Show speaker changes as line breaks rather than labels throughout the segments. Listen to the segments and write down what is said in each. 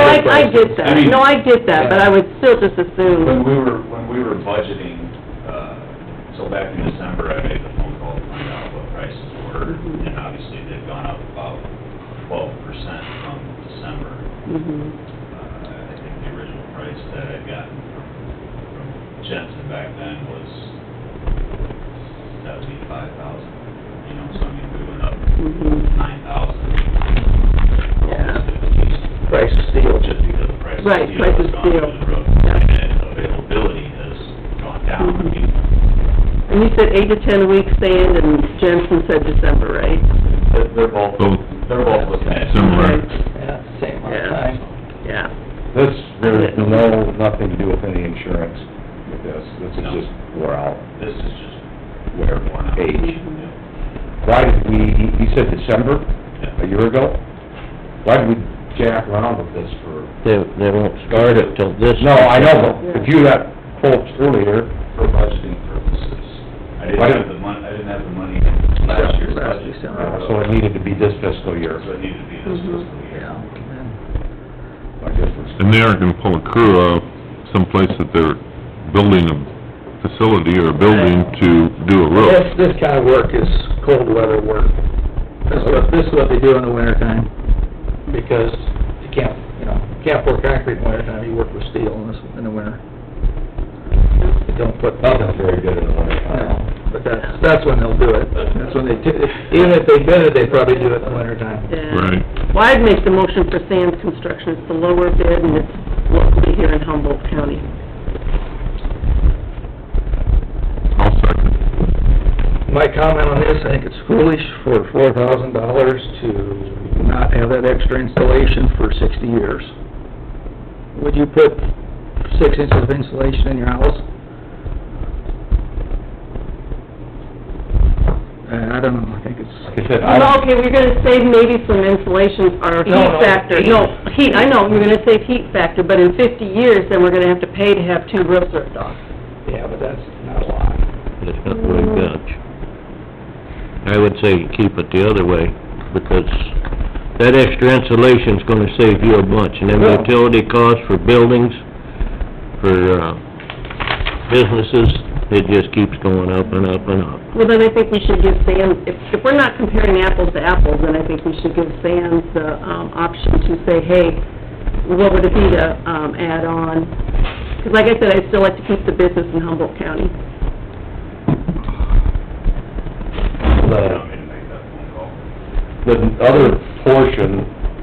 I, I did
I
that,
mean-
no, I did that, but I would still just
When
assume,
we were, when we were budgeting, uh, so back in December, I made the phone call to find out what prices were,
Mhm.
and obviously they've gone up about twelve percent from December.
Mhm.
Uh, I think the original price that I got from from Jensen back then was seventy-five thousand, you know, so I mean, we went up
Mhm.
nine thousand.
Yeah.
Price of steel.
Just because the price of
Right,
steel
price of
has gone through
steel.
the roof,
Yeah.
and availability has gone down. I
Mhm.
mean,
and you said eight to ten weeks sand, and Jensen said December, right?
They're they're both,
Both.
they're both looking at.
Similar.
Okay.
Yeah, same amount
Yeah.
of time.
Yeah,
This, there's no, nothing to do with any insurance with this, this is
No.
just, we're out,
This is just.
where,
worn out.
age.
Yeah.
Why did we, you said December,
Yeah.
a year ago? Why did we jack around with this for?
They, they won't start it till this.
No, I know, but if you got quotes earlier,
For budgeting purposes. I
Why
didn't
don't-
have the mon, I didn't have the money in last year's
Last
budget.
December.
so it needed to be this fiscal year,
So it needed to be this
Mhm.
fiscal year.
I guess it's,
And they aren't gonna pull a crew out someplace that they're building a facility or a building to do a
This,
roof.
this kind of work is cold weather work. This is what, this is what they do in the winter time, because you can't, you know, you can't pour concrete in winter time, you work with steel in this, in the winter. You don't put, you
nothing's
don't-
very good in the winter time.
no, but that's, that's when they'll do it, that's when they, do- even if they bid it, they probably do it in the winter time.
yeah.
Right.
Well, I'd make the motion for sand construction, it's the lower bid, and it's locally here in Humboldt County.
I'll second.
My comment on this, I think it's foolish for four thousand dollars to not have that extra installation for sixty years. Would you put six inches of insulation in your house? Uh, I don't know, I think it's,
Like I said, I
Well,
don't,
okay, we're gonna save maybe some insulation or
No, no,
heat factor, no, heat, I know, you're gonna save heat factor, but in fifty years, then we're gonna have to pay to have two roofs ripped off.
yeah, but that's not a lot.
It's not very much. I would say you keep it the other way, because that extra insulation's gonna save you a bunch, and then
Yeah.
utility costs for buildings, for, uh, businesses, it just keeps going up and up and up.
Well, then I think we should give Sam, if, if we're not comparing apples to apples, then I think we should give Sam the, um, option to say, hey, what would it be to, um, add on? 'Cause like I said, I'd still like to keep the business in Humboldt County.
You
the,
want me to make that phone call?
the other portion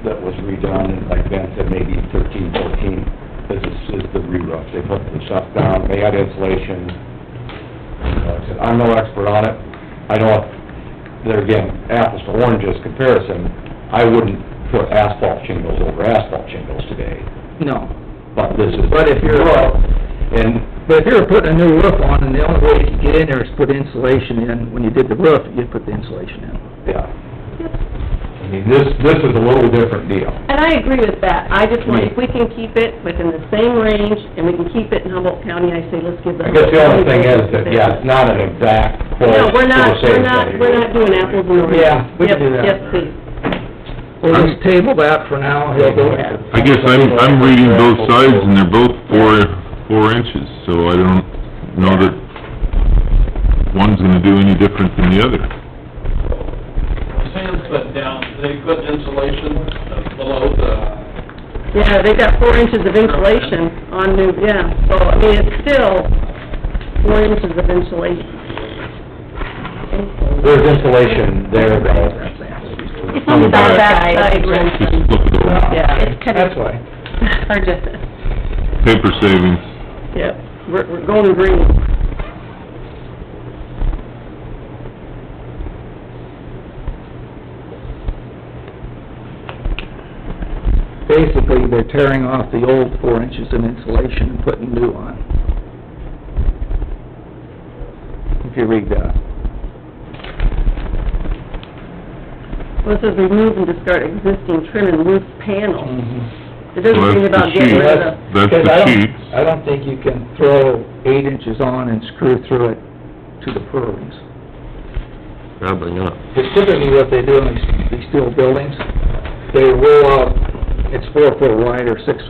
that was redone, like Ben said, maybe thirteen, fourteen, this is, is the re-roof. They put the stuff down, they had insulation. Like I said, I'm no expert on it. I know, if- there again, apples to oranges comparison, I wouldn't put asphalt shingles over asphalt shingles today,
No.
but this is.
But if you're-
Well, And
But if you were putting a new roof on, and the only way you could get in there is put insulation in, when you did the roof, you'd put the insulation in.
Yeah. I mean, this, this is a little different deal.
And I agree with that, I just want, if we can keep it within the same range, and we can keep it in Humboldt County, I say, let's give the
I guess the only
Humboldt
thing
County
is that, yeah, it's not an exact quote
No, we're
for the
not, we're
same
not,
thing.
we're not doing apples and oranges.
Yeah, we can do that.
Yes, yes, please.
We'll just table that for now, he'll go ahead.
I guess I'm, I'm reading both sides and they're both four, four inches, so I don't know that one's gonna do any different than the other.
sand's put down, they put insulation uh, below the,
Yeah, they got four inches of insulation on new, yeah, so, I mean, it's still four inches of insulation.
There's insulation there, though.
It's on the back side,
Just
Jensen.
look it over.
Yeah,
It's kind of
That's why.
hard to,
Paper savings.
yep, we're, we're going green.
Basically, they're tearing off the old four inches of insulation and putting new on. If you read that.
Well, it says remove and discard existing trim and roof panel. It doesn't
Well,
mean
that's
about
the
getting
sheet.
rid of,
That's
Because I
the
don't-
sheets.
I don't think you can throw eight inches on and screw through it to the purlings.
Probably not.
Because typically what they do in these, these steel buildings, they roll out, it's four foot wide or six